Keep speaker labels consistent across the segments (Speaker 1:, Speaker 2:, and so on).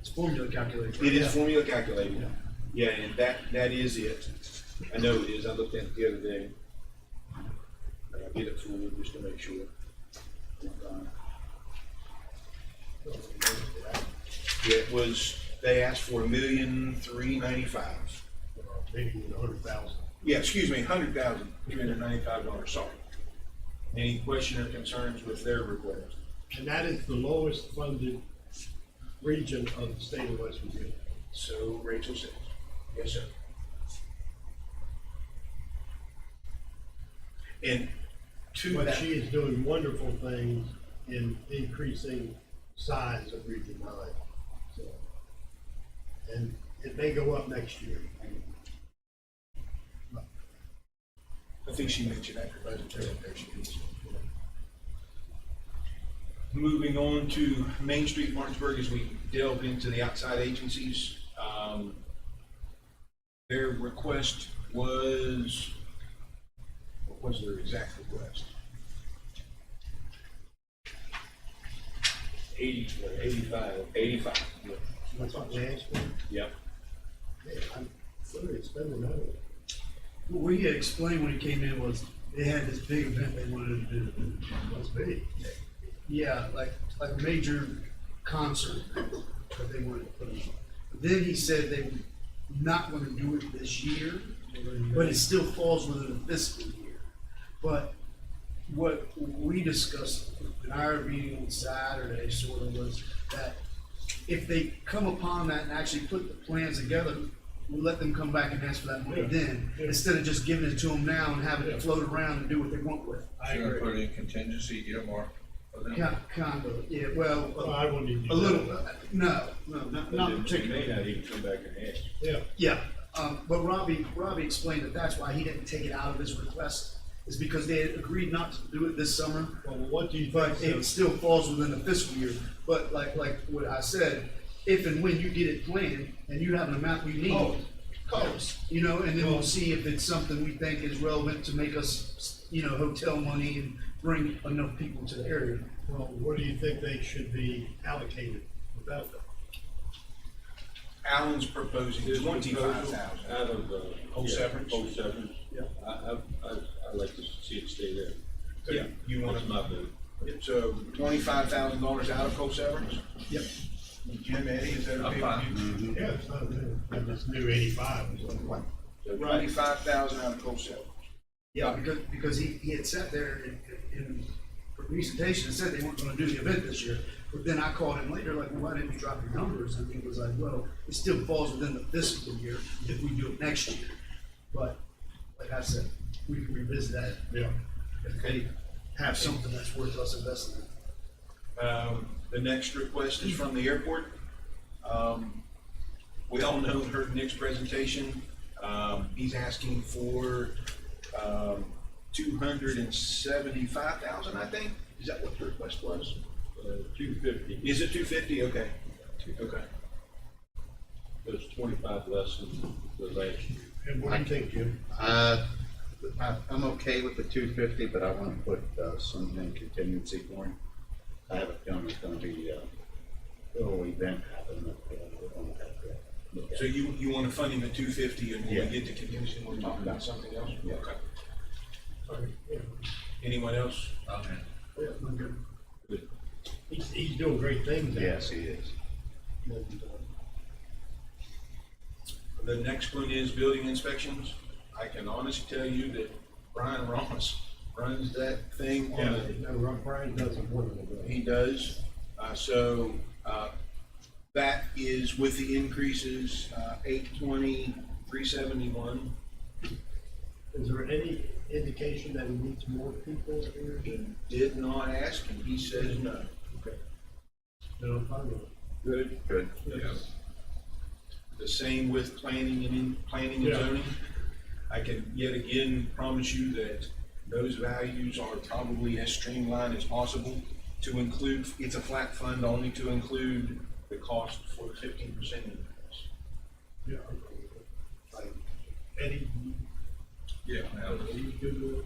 Speaker 1: It's formula calculated.
Speaker 2: It is
Speaker 1: Yeah.
Speaker 2: formula calculated. Yeah, and that, that is it. I know it is. I looked at it the other day. And I did it for you just to make sure. It was, they asked for a million three ninety-five.
Speaker 1: Maybe even a hundred thousand.
Speaker 2: Yeah, excuse me, hundred thousand three hundred ninety-five dollars, sorry. Any question or concerns with their request?
Speaker 1: And that is the lowest funded region of the state of West Virginia.
Speaker 2: So Rachel says, yes, sir. And to
Speaker 1: But
Speaker 2: that,
Speaker 1: she is doing wonderful things in increasing size of Region Nine, so. And it may go up next year.
Speaker 2: I think she mentioned after budget presentation. Moving on to Main Street Martinsburg, as we delve into the outside agencies, um, their request was, what was their exact request? Eighty, what, eighty-five? Eighty-five.
Speaker 1: That's what they asked for.
Speaker 2: Yep.
Speaker 1: Man, I'm literally spending money.
Speaker 3: What we had explained when he came in was they had this big event they wanted to do.
Speaker 1: Must be.
Speaker 3: Yeah, like, like a major concert that they wanted to put on. Then he said they were not gonna do it this year, but it still falls within the fiscal year. But what we discussed in our meeting on Saturday sort of was that if they come upon that and actually put the plans together, we let them come back and ask for that money
Speaker 1: Yeah.
Speaker 3: then,
Speaker 1: Yeah.
Speaker 3: instead of just giving it to them now and having
Speaker 1: Yeah.
Speaker 3: it float around and do what they want with.
Speaker 1: I
Speaker 4: Should I
Speaker 1: agree.
Speaker 4: put in contingency earmark for them?
Speaker 3: Kind, kind of, yeah, well,
Speaker 1: Well,
Speaker 3: uh,
Speaker 1: I wouldn't even. do
Speaker 3: a little,
Speaker 1: that.
Speaker 3: uh, no, no, not, not particularly.
Speaker 2: They may not even come back and ask.
Speaker 1: Yeah,
Speaker 3: Yeah, um, but Robbie, Robbie explained that that's why he didn't take it out of his request, is because they had agreed not to do it this summer,
Speaker 1: well, what do you
Speaker 3: but
Speaker 1: think?
Speaker 3: it
Speaker 1: so-
Speaker 3: still falls within the fiscal year. But like, like what I said, if and when you get it planned and you have an amount you
Speaker 1: Oh,
Speaker 3: need,
Speaker 1: Colors.
Speaker 3: you know, and then
Speaker 1: Oh.
Speaker 3: we'll see if it's something we think is relevant to make us, you know, hotel money and bring enough people to the area.
Speaker 1: Well, what do you think they should be allocated without that?
Speaker 2: Alan's proposing
Speaker 5: His
Speaker 2: twenty-five
Speaker 5: proposal
Speaker 2: thousand.
Speaker 5: Out of, uh.
Speaker 2: Whole
Speaker 5: yeah,
Speaker 2: severance?
Speaker 5: Whole severance.
Speaker 3: Yeah.
Speaker 5: I, I, I, I'd like to see it stay there.
Speaker 2: Yeah, you want
Speaker 5: That's
Speaker 2: to,
Speaker 5: my vote.
Speaker 2: it's, uh, twenty-five thousand dollars out of coal severance?
Speaker 3: Yep.
Speaker 2: Jim, Eddie, is that
Speaker 4: I'm
Speaker 2: okay
Speaker 4: fine.
Speaker 2: with you?
Speaker 1: Yeah, it's not new. I just knew eighty-five or something.
Speaker 5: So
Speaker 2: Uh, Twenty-five thousand out of coal severance.
Speaker 3: Yeah, because, because he, he had sat there in, in the presentation and said they weren't gonna do the event this year. But then I called him later, like, why didn't you drop your numbers? And he was like, well, it still falls within the fiscal year if we do it next year. But, like I said, we can revisit that
Speaker 1: Yeah.
Speaker 3: if they have something that's worth us investing in.
Speaker 2: Um, the next request is from the airport. Um, we all know her Nick's presentation. Um, he's asking for, um, two hundred and seventy-five thousand, I think. Is that what the request was?
Speaker 5: Two fifty,
Speaker 2: Is it two fifty? Okay. Okay.
Speaker 5: that's twenty-five less than the last year.
Speaker 1: And what do you think, Jim?
Speaker 6: Uh, I, I'm okay with the two fifty, but I wanna put, uh, something contingency for him. I have a feeling it's gonna be, uh, a little event happening up there. We're gonna have to look at
Speaker 2: So
Speaker 6: it.
Speaker 2: you, you wanna fund him at two fifty and when
Speaker 6: Yeah.
Speaker 2: we get to contingency, we're talking about something else?
Speaker 6: Yeah.
Speaker 2: Okay.
Speaker 1: Sorry, yeah.
Speaker 2: Anyone else?
Speaker 4: Okay.
Speaker 1: Yeah, I'm good.
Speaker 5: Good.
Speaker 1: He's, he's doing great things. uh, out
Speaker 6: Yes, he is.
Speaker 1: there.
Speaker 2: The next one is building inspections. I can honestly tell you that Brian Ramos runs that thing on
Speaker 1: Yeah,
Speaker 2: a
Speaker 1: no, Rob Brian doesn't want to do
Speaker 2: He does. Uh, so, uh, that is with the increases, uh, eight twenty, three seventy-one.
Speaker 1: Is there any indication that he needs more people here, Jim?
Speaker 2: Did not ask and he says no.
Speaker 1: No, I'm fine with it.
Speaker 2: Good.
Speaker 6: Good.
Speaker 2: Yeah. The same with planning and in, planning and
Speaker 1: Yeah.
Speaker 2: zoning. I can yet again promise you that those values are probably as streamlined as possible to include, it's a flat fund only to include the cost for fifteen percent increase.
Speaker 1: Yeah. I'm fine with it. Like, Eddie,
Speaker 4: Yeah, now,
Speaker 1: are you good with it?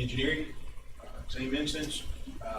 Speaker 2: Engineering, uh, same instance, Uh,